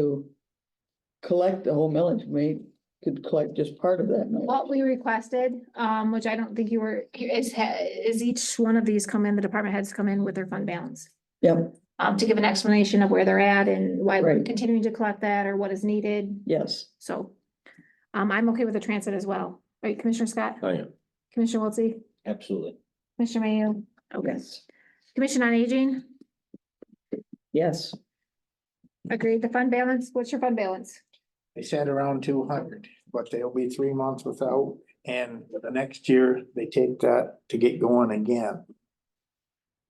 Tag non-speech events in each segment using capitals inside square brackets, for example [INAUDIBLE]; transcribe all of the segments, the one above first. to collect the whole millage, we could collect just part of that millage. What we requested, um, which I don't think you were, is, ha- is each one of these come in, the department heads come in with their fund balance. Yep, Um, to give an explanation of where they're at and why we're Right. continuing to collect that or what is needed, yes, so. Um, I'm okay with the transit as well, right, Commissioner Scott, I am, Commissioner Wiltie, absolutely. Commissioner Mayo, okay, yes, Commission on Aging, yes. agreed, the fund balance, what's your fund balance? They said around two hundred, but they'll be three months without, and the next year, they take that to get going again.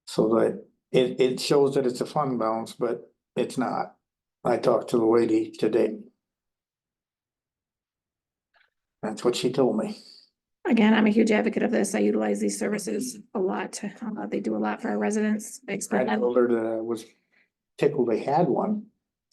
So that, it, it shows that it's a fund balance, but it's not. I talked to the lady today. That's what she told me. Again, I'm a huge advocate of this, I utilize these services a lot, Uh, they do a lot for our residents, I I expect that. told her that I was tickled they had one.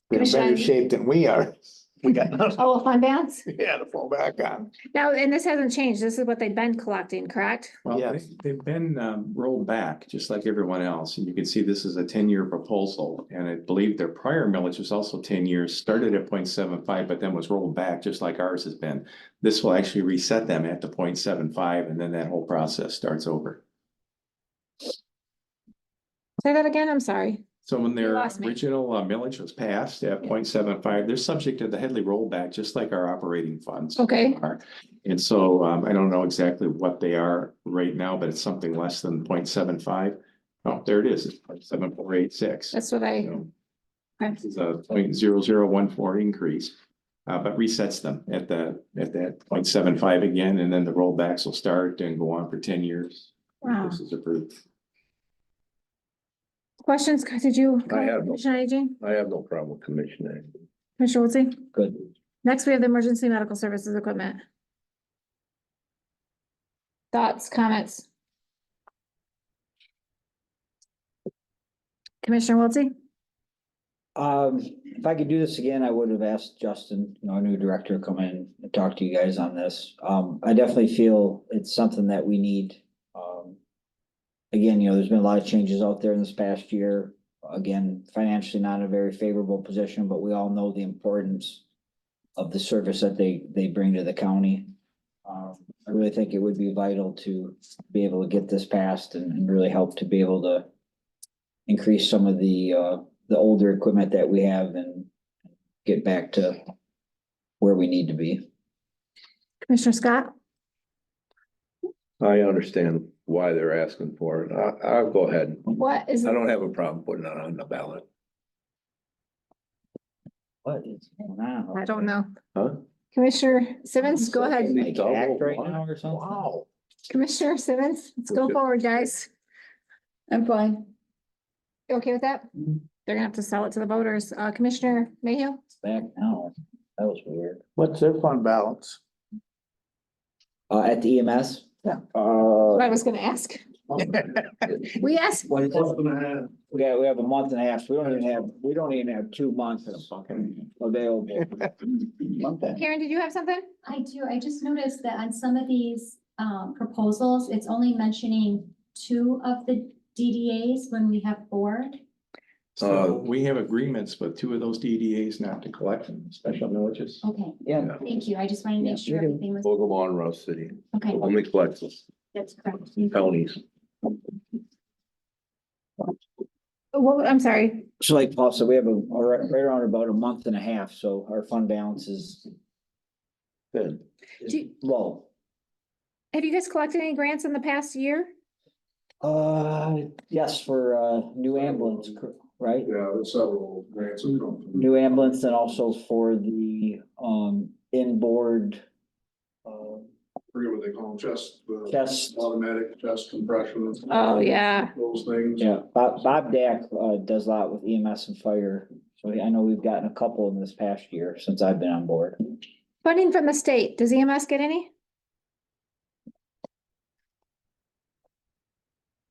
They're in Commissioner, better I- shape than we are. We got nothing, Oh, a fund balance? yeah, to fall back on. Now, and this hasn't changed. This is what they've been collecting, correct? Well, they- Yes. they've been um, rolled back, just like everyone else, and you can see this is a ten-year proposal. And I believe their prior millage was also ten years, started at 0.75, but then was rolled back, just like ours has been. This will actually reset them at the 0.75, and then that whole process starts over. Say that again, I'm sorry. So when You their lost me. original uh, millage was passed at 0.75, they're subject to the Headley rollback, just like our operating funds. Okay. are. And so um, I don't know exactly what they are right now, but it's something less than 0.75. Oh, there it is, it's 0.7486. That's what I, So Okay. This is a 0.0014 increase, uh, but resets them at the, at that 0.75 again, and then the rollbacks will start and go on for ten years. if Wow. This is approved. questions, did you? I have no- Commissioner Aging, I have no problem with commissioner. Commissioner Wiltie? Good. Next, we have the emergency medical services equipment. Thoughts, comments? Commissioner Wiltie? Um, if I could do this again, I would have asked Justin, you know, our new director, to come in and talk to you guys on this. Um, I definitely feel it's something that we need. Um, Again, you know, there's been a lot of changes out there in this past year. Again, financially not in a very favorable position, but we all know the importance of the service that they, they bring to the county. Um, I really think it would be vital to be able to get this passed and, and really help to be able to increase some of the, uh, the older equipment that we have and get back to where we need to be. Commissioner Scott? I understand why they're asking for it. I, I'll go ahead. What is, I don't have a problem putting it on the ballot. What is going on? I don't know. Huh? Commissioner Simmons, go ahead. Like act right now or something? Wow. Commissioner Simmons, let's go Okay. forward, guys. I'm fine. You Okay with that? Mhm. They're gonna have to sell it to the voters. Uh, Commissioner Mayhew? Back now. That was weird. What's their [LAUGHS] fund balance? Uh, at the EMS? Yeah. Uh, What [LAUGHS] I was gonna ask. We asked, what is it? We got, we have a month and a half, so we don't even have, we don't even have two months available. Karen, did you have something? I do, I just noticed that on some of these um proposals, it's only mentioning two of the DDAs when we have four. So Uh, we have agreements with two of those DDAs not to collect them, special villages. Okay, Yeah, thank you. I just wanted to Yeah, make sure you do. everything was, Ogumah and Rouse City, okay, only collects that's correct. Thank you. counties. Well, I'm sorry. So like Paul said, we have a, right right around about a month and a half, so our fund balance is Good. Do- low. Have you guys collected any grants in the past year? Uh, yes, for uh, new ambulance, cor- right? Yeah, there's several grants that come through. New ambulance and also for the um inboard. uh, um, forget what they call them, chest, the Chest, automatic chest compression. Oh, yeah. Those things. yeah, Bob, Bob Dak uh does a lot with EMS and fire. So I know we've gotten a couple in this past year since I've been on board. Funding from the state. Does EMS get any?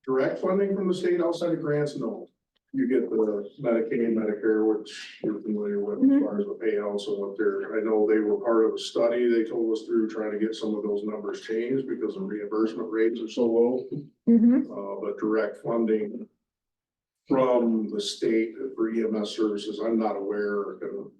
Direct funding from the state outside of grants, no. You get the Medicaid, Medicare, which you're familiar with Mhm. as far as the payouts and what they're, I know they were part of a study they told us through trying to get some of those numbers changed because the reimbursement rates are so low. Mm-hmm. uh, but direct E funding from the state for EMS services, I'm not aware, I can